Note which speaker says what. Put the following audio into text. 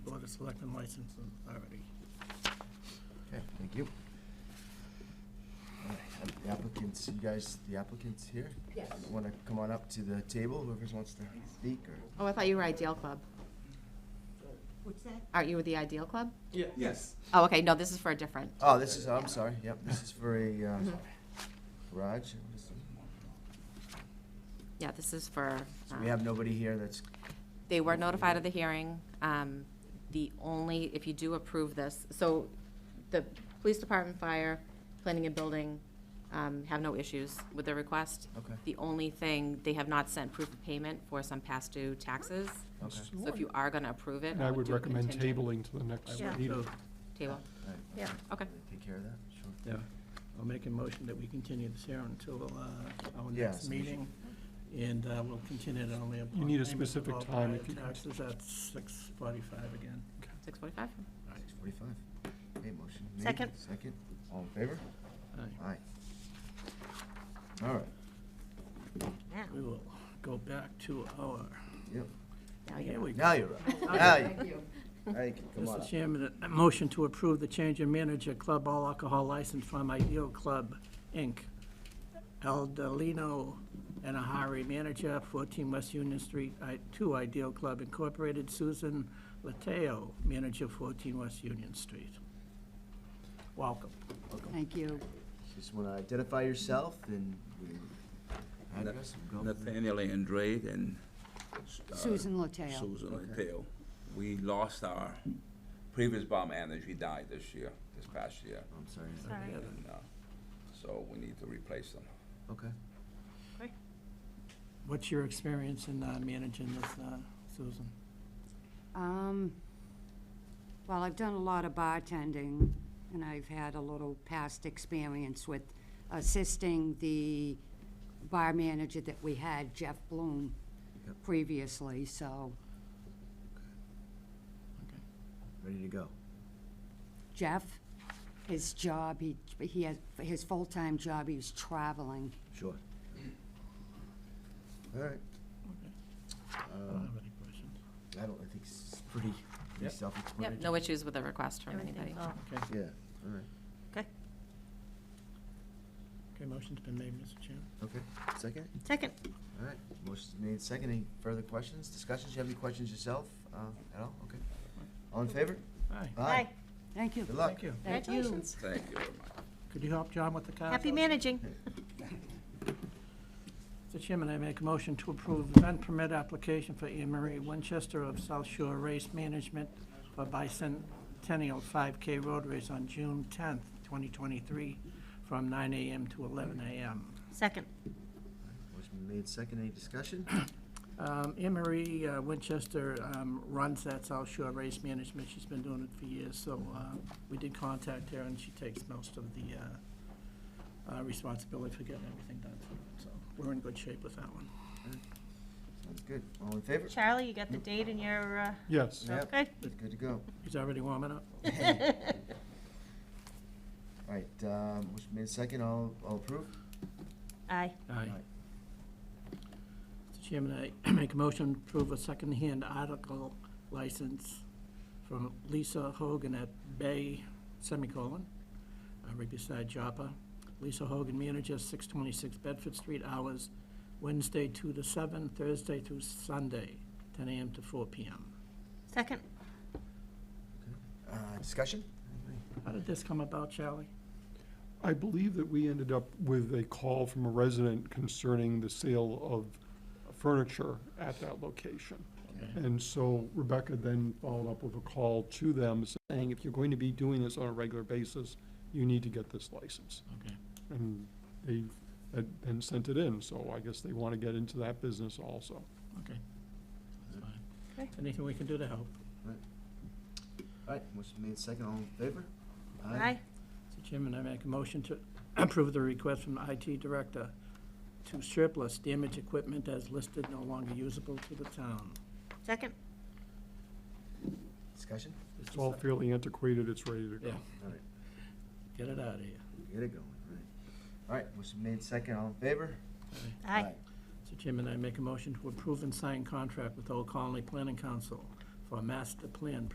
Speaker 1: Board of Selectmen license authority.
Speaker 2: Okay, thank you. All right, and the applicants, you guys, the applicants here?
Speaker 3: Yes.
Speaker 2: Want to come on up to the table, whoever wants to speak, or?
Speaker 3: Oh, I thought you were Ideal Club.
Speaker 4: What's that?
Speaker 3: Aren't you with the Ideal Club?
Speaker 5: Yes.
Speaker 3: Oh, okay, no, this is for a different.
Speaker 2: Oh, this is, I'm sorry, yep, this is for a uh,
Speaker 3: Mhm.
Speaker 2: garage. what is it?
Speaker 3: Yeah, this is for,
Speaker 2: So
Speaker 3: um,
Speaker 2: we have nobody here that's,
Speaker 3: they were notified of the hearing. Um, The only, if you do approve this, so the police department, fire, planning and building um, have no issues with the request.
Speaker 2: Okay.
Speaker 3: The only thing, they have not sent proof of payment for some past due taxes.
Speaker 2: okay.
Speaker 3: So if you are going to approve it,
Speaker 6: And I would
Speaker 3: do
Speaker 6: recommend
Speaker 3: contingent.
Speaker 6: tabling to the next
Speaker 1: I would
Speaker 6: meeting.
Speaker 1: so-
Speaker 3: Table,
Speaker 2: All right,
Speaker 4: Yeah.
Speaker 3: okay.
Speaker 2: Take care of that, sure.
Speaker 1: Yeah, I'll make a motion that we continue this here until uh, our
Speaker 2: Yes,
Speaker 1: next
Speaker 2: we should.
Speaker 1: meeting, and uh, we'll continue it only upon...
Speaker 6: You need a
Speaker 1: payment of
Speaker 6: specific
Speaker 1: all
Speaker 6: time
Speaker 1: prior
Speaker 6: if you-
Speaker 1: Taxes at six forty-five again.
Speaker 3: 6:45.
Speaker 2: Six forty-five. Okay, motion made.
Speaker 4: Second.
Speaker 2: Second, all in favor?
Speaker 1: Aye.
Speaker 2: Aye. All right,
Speaker 4: Now,
Speaker 1: We will go back to our,
Speaker 2: yep,
Speaker 3: Now
Speaker 1: here
Speaker 3: you
Speaker 1: we go.
Speaker 2: now you're up. Now you, now you can come on
Speaker 1: Mr.
Speaker 2: up.
Speaker 1: Chairman, a motion to approve the change in manager club all alcohol license from Ideal Club, Inc., Eldolino and Ahari manager, 14 West Union Street, I- to Ideal Club Incorporated, Susan Lateo, manager, 14 West Union Street. Welcome.
Speaker 7: Thank you.
Speaker 2: Just want to identify yourself and your address and go. from there.
Speaker 5: Nathaniel Andrade and uh,
Speaker 7: Susan Lateo.
Speaker 5: Susan Lateo. We lost our previous bomb manager. He died this year, this past year.
Speaker 2: Oh, I'm sorry.
Speaker 4: sorry.
Speaker 5: And, uh, so we need to replace them.
Speaker 2: Okay.
Speaker 1: What's your experience in uh, managing this, uh, Susan?
Speaker 7: Um, Well, I've done a lot of bartending, and I've had a little past experience with assisting the bar manager that we had, Jeff Bloom,
Speaker 2: Yep.
Speaker 7: previously, so
Speaker 2: Ready to go.
Speaker 7: Jeff, his job, he, he had, his full-time job, he was traveling.
Speaker 2: Sure. All right. Uh, um,
Speaker 1: I don't have any questions.
Speaker 2: I don't, I think it's pretty,
Speaker 1: Yep.
Speaker 2: pretty self-explanatory.
Speaker 3: Yep, no issues with the request from anybody.
Speaker 4: everything's all,
Speaker 1: Okay,
Speaker 2: Yeah, all right.
Speaker 4: okay.
Speaker 1: okay, motion's been made, Mr. Chairman.
Speaker 2: Okay, second?
Speaker 4: Second,
Speaker 2: All right. Motion's made second. Any further questions, discussions? You have any questions yourself, uh, at all? Okay. All in favor?
Speaker 1: Aye.
Speaker 4: aye,
Speaker 7: Thank you.
Speaker 2: Good luck.
Speaker 1: Thank you.
Speaker 7: Thank you.
Speaker 4: congratulations.
Speaker 5: Thank you very much.
Speaker 1: Could you help John with the cars?
Speaker 4: Happy managing.
Speaker 1: Mr. Chairman, I make a motion to approve event permit application for Anne Marie Winchester of South Shore Race Management for bicentennial 5K road race on June 10th, 2023, from 9 a.m. to 11 a.m.
Speaker 4: Second,
Speaker 2: Motion made second. Any discussion?
Speaker 1: Um, Anne Marie uh, Winchester um, runs that South Shore Race Management. She's been doing it for years, so uh, we did contact her, and she takes most of the uh, uh, responsibility for getting everything done. So we're in good shape with that one.
Speaker 2: Sounds good. All in favor?
Speaker 4: Charlie, you got the date in your, uh,
Speaker 6: Yes.
Speaker 2: Yep.
Speaker 4: okay,
Speaker 2: Good to go.
Speaker 1: He's already warming up.
Speaker 2: All right, um, motion made second. All, all approved?
Speaker 4: aye,
Speaker 1: Aye. Mr. Chairman, I make a motion to approve a second-hand article license from Lisa Hogan at Bay, semicolon, uh, right beside Joppa. Lisa Hogan, manager, 626 Bedford Street, hours Wednesday 2 to 7, Thursday through Sunday, 10 a.m. to 4 p.m.
Speaker 4: second.
Speaker 2: Uh, discussion?
Speaker 1: How did this come about, Charlie?
Speaker 6: I believe that we ended up with a call from a resident concerning the sale of furniture at that location. And so Rebecca then followed up with a call to them saying, if you're going to be doing this on a regular basis, you need to get this license.
Speaker 1: Okay.
Speaker 6: And they had then sent it in, so I guess they want to get into that business also.
Speaker 1: Okay. That's fine.
Speaker 4: Okay.
Speaker 1: Anything we can do to help?
Speaker 2: All right, motion made second. All in favor?
Speaker 4: Aye,
Speaker 1: Mr. Chairman, I make a motion to approve the request from IT Director to surplus damaged equipment as listed, no longer usable to the town.
Speaker 4: second,
Speaker 2: Discussion?
Speaker 6: It's all fairly antiquated, it's ready to go.
Speaker 1: Yeah,
Speaker 2: All right,
Speaker 1: get it out of here.
Speaker 2: get it going, all right. All right, motion made second. All in favor?
Speaker 4: aye,
Speaker 1: Mr. Chairman, I make a motion to approve and sign contract with Old Colony Planning Council for a master plan